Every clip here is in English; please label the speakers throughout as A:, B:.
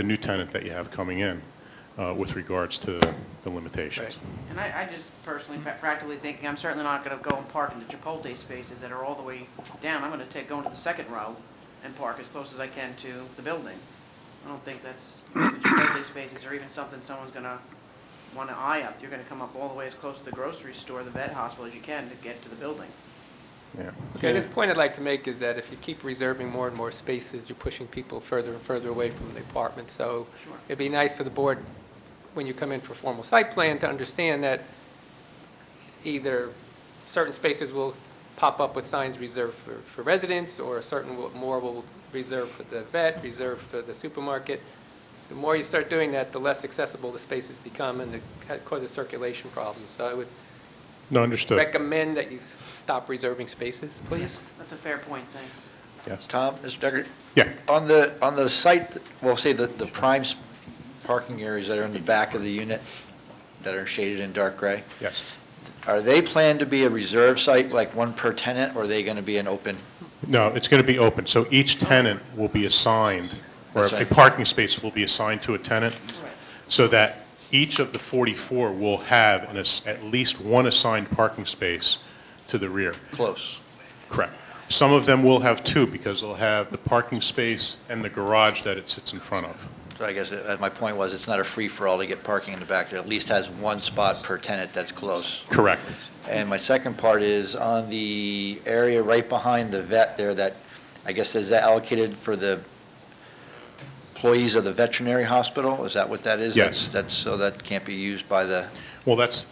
A: the new tenant that you have coming in uh, with regards to the limitations.
B: And I, I just personally, pra- practically thinking, I'm certainly not gonna go and park in the Chipotle spaces that are all the way down. I'm gonna take, go into the second row and park as close as I can to the building. I don't think that's, the Chipotle spaces or even something someone's gonna wanna eye up. You're gonna come up all the way as close to the grocery store, the vet hospital as you can to get to the building.
A: Yeah.
C: Okay, this point I'd like to make is that if you keep reserving more and more spaces, you're pushing people further and further away from the apartment. So
B: Sure.
C: it'd be nice for the board, when you come in for formal site plan, to understand that either certain spaces will pop up with signs reserved for, for residents, or certain will- more will reserve for the vet, reserved for the supermarket. The more you start doing that, the less accessible the spaces become, and it ca- causes circulation problems. So I would
A: No, understood.
C: recommend that you s- stop reserving spaces, please.
B: That's a fair point, thanks.
A: Yes.
D: Tom, Mr. Decker,
A: Yeah,
D: on the, on the site, well, say the, the prime s- parking areas that are in the back of the unit that are shaded in dark gray,
A: yes.
D: are they planned to be a reserve site, like one per tenant, or are they going to be an open?
A: No, it's going to be open, so each tenant will be assigned, or
D: That's
A: a
D: right.
A: parking space will be assigned to a tenant,
B: Right.
A: so that each of the 44 will have an ass- at least one assigned parking space to the rear.
D: Close.
A: Correct. Some of them will have two, because they'll have the parking space and the garage that it sits in front of.
D: So I guess, uh, my point was, it's not a free-for-all to get parking in the back. There at least has one spot per tenant that's close.
A: Correct.
D: And my second part is on the area right behind the vet there that, I guess, is that allocated for the employees of the veterinary hospital? Is that what that is?
A: Yes.
D: That's- That's, so that can't be used by the,
A: Well, that's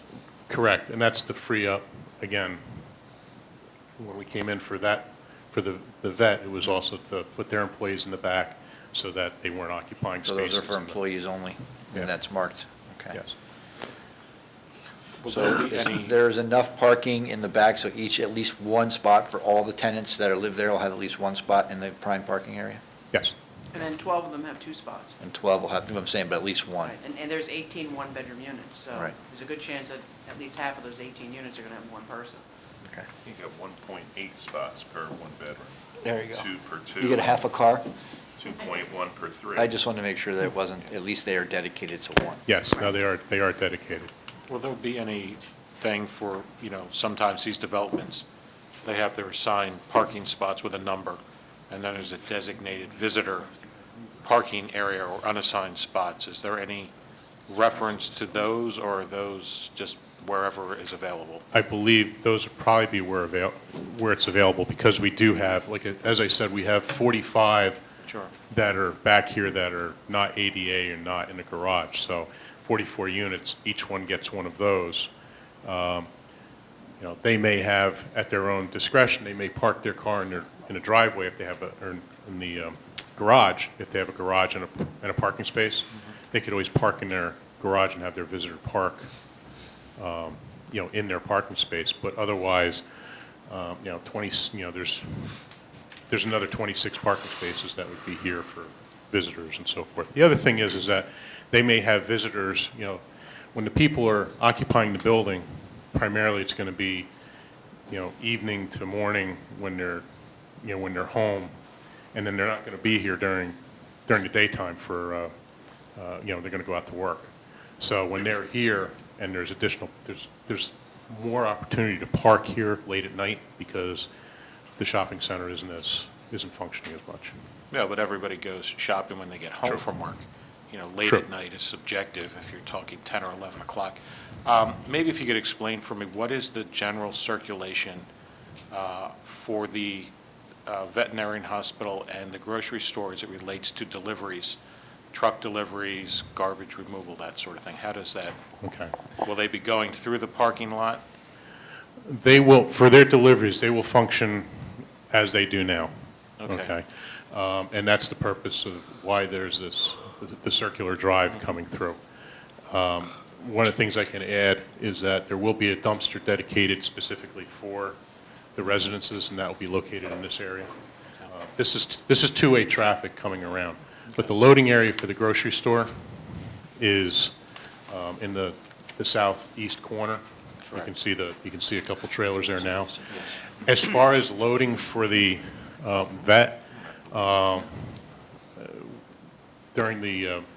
A: correct, and that's the free up, again, when we came in for that, for the the vet, it was also to put their employees in the back so that they weren't occupying
D: so
A: spaces.
D: those are for employees only,
A: Yeah.
D: and that's marked, okay.
A: Yes.
E: Will
D: So
E: there be
D: is-
E: any-
D: there is enough parking in the back, so each, at least one spot for all the tenants that are live there will have at least one spot in the prime parking area?
A: Yes,
B: And then twelve of them have two spots.
D: And 12 will have, I'm saying, but at least one.
B: Right, And, and there's 18 one one-bedroom units, so
D: Right.
B: there's a good chance that at least half of those eighteen units are gonna have one person.
D: Okay.
F: You got one point eight spots per one bedroom,
D: There you go.
F: two per two.
D: You get a half a car?
F: Two point one per three.
D: I just wanted to make sure that it wasn't, at least they are dedicated to one.
A: yes, now they are, they are dedicated.
E: Will there be any thing for, you know, sometimes these developments, they have their assigned parking spots with a number, and then there's a designated visitor parking area or unassigned spots. Is there any reference to those, or are those just wherever is available?
A: I believe those would probably be where avail, where it's available, because we do have, like, as I said, we have 45
E: Sure.
A: that are back here that are not ADA and not in a garage. So 44 units, each one gets one of those. Um, You know, they may have, at their own discretion, they may park their car in their, in a driveway if they have a, or in- in the um, garage, if they have a garage and a, and a parking space. They could always park in their garage and have their visitor park, um, you know, in their parking space. But otherwise, um, you know, 20, you know, there's there's another 26 parking spaces that would be here for visitors and so forth. The other thing is, is that they may have visitors, you know, when the people are occupying the building, primarily it's going to be, you know, evening to morning when they're, you know, when they're home, and then they're not going to be here during, during the daytime for, uh, uh, you know, they're going to go out to work. So when they're here and there's additional, there's, there's more opportunity to park here late at night because the shopping center isn't as, isn't functioning as much.
E: No, but everybody goes shopping when they get home
A: True.
E: from work. You know, late
A: True.
E: at night is subjective if you're talking 10 or 11 o'clock. Um, Maybe if you could explain for me, what is the general circulation uh, for the uh, veterinarian hospital and the grocery store as it relates to deliveries, truck deliveries, garbage removal, that sort of thing? How does that,
A: Okay.
E: will they be going through the parking lot?
A: They will, for their deliveries, they will function as they do now.
E: Okay.
A: Okay? Um, And that's the purpose of why there's this, the circular drive coming through. Um, One of the things I can add is that there will be a dumpster dedicated specifically for the residences, and that will be located in this area. Uh, This is, this is two-way traffic coming around, but the loading area for the grocery store is um, in the the southeast corner. You can
E: Correct.
A: see the, you can see a couple trailers there now. As far as loading for the um, vet, um, uh, during the, um,